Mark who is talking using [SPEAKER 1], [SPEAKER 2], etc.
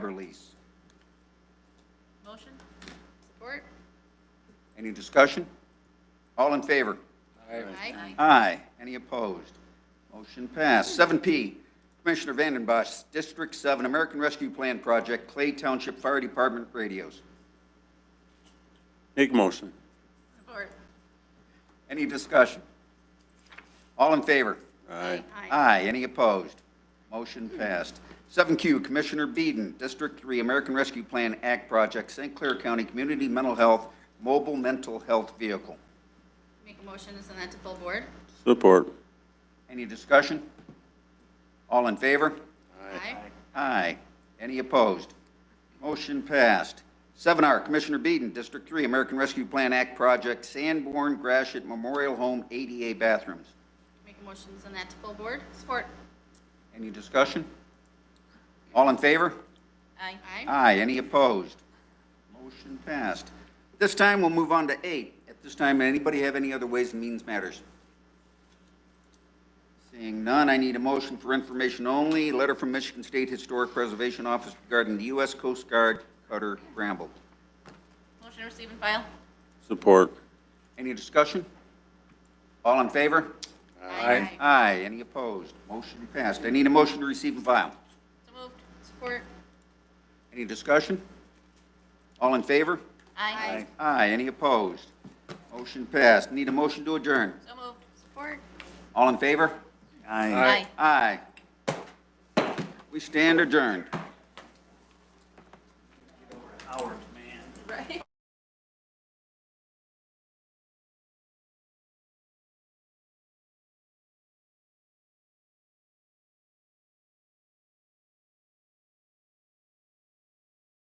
[SPEAKER 1] water lease.
[SPEAKER 2] Motion? Support?
[SPEAKER 1] Any discussion? All in favor?
[SPEAKER 2] Aye.
[SPEAKER 1] Aye. Any opposed? Motion passed. Seven P, Commissioner Vanden Bosch, District Seven, American Rescue Plan Project, Clay Township Fire Department radios.
[SPEAKER 3] Make motion.
[SPEAKER 2] Support?
[SPEAKER 1] Any discussion? All in favor?
[SPEAKER 3] Aye.
[SPEAKER 1] Aye. Any opposed? Motion passed. Seven Q, Commissioner Beeden, District Three, American Rescue Plan Act Project, St. Clair County Community Mental Health Mobile Mental Health Vehicle.
[SPEAKER 2] Make a motion to send that to full board?
[SPEAKER 3] Support.
[SPEAKER 1] Any discussion? All in favor?
[SPEAKER 2] Aye.
[SPEAKER 1] Aye. Any opposed? Motion passed. Seven R, Commissioner Beeden, District Three, American Rescue Plan Act Project, Sanborn Grashit Memorial Home ADA Bathrooms.
[SPEAKER 2] Make a motion to send that to full board? Support?
[SPEAKER 1] Any discussion? All in favor?
[SPEAKER 2] Aye. Aye.
[SPEAKER 1] Aye. Any opposed? Motion passed. This time, we'll move on to eight. At this time, anybody have any other Ways and Means Matters? Seeing none, I need a motion for information only. Letter from Michigan State Historic Preservation Office regarding the U.S. Coast Guard cutter Bramble.
[SPEAKER 2] Motion to receive and file?
[SPEAKER 3] Support.
[SPEAKER 1] Any discussion? All in favor?
[SPEAKER 2] Aye.
[SPEAKER 1] Aye. Any opposed? Motion passed. I need a motion to receive and file.
[SPEAKER 2] So moved. Support?
[SPEAKER 1] Any discussion? All in favor?
[SPEAKER 2] Aye.
[SPEAKER 1] Aye. Any opposed? Motion passed. Need a motion to adjourn.
[SPEAKER 2] So moved. Support?
[SPEAKER 1] All in favor?
[SPEAKER 2] Aye.
[SPEAKER 1] Aye. We stand adjourned.
[SPEAKER 2] Right.